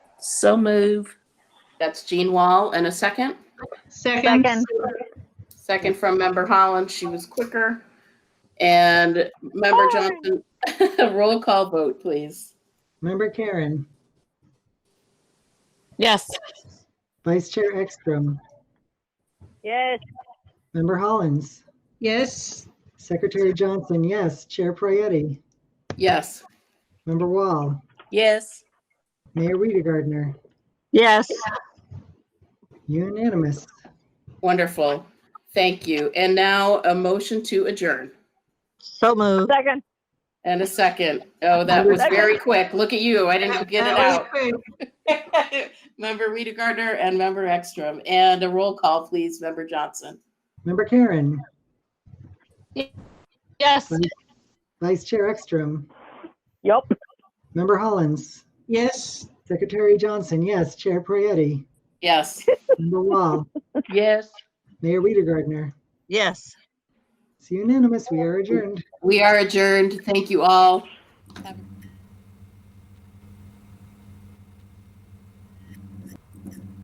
So move. That's Jean Wall and a second. Second. Second. Second from member Holland. She was quicker. And member Johnson, roll call vote, please. Member Karen, Yes. Vice Chair Ekstrom, Yes. Member Hollins, Yes. Secretary Johnson, yes. Chair Prayety, Yes. Member Wall, Yes. Mayor Rita Gardner, Yes. unanimous. Wonderful. Thank you. And now a motion to adjourn So moved. Second. and a second. Oh, that was very quick. Look at you. I didn't get Uh, it out. Member Rita Gardner and Member Ekstrom. And a roll call, please, Member Johnson. Member Karen, Yes. Vice Chair Ekstrom, Yep. Member Hollins, Yes. Secretary Johnson, yes. Chair Prayety, Yes. Member Wall, Yes. Mayor Rita Gardner. Yes. It's unanimous. We are adjourned. We are adjourned. Thank you all. Have a great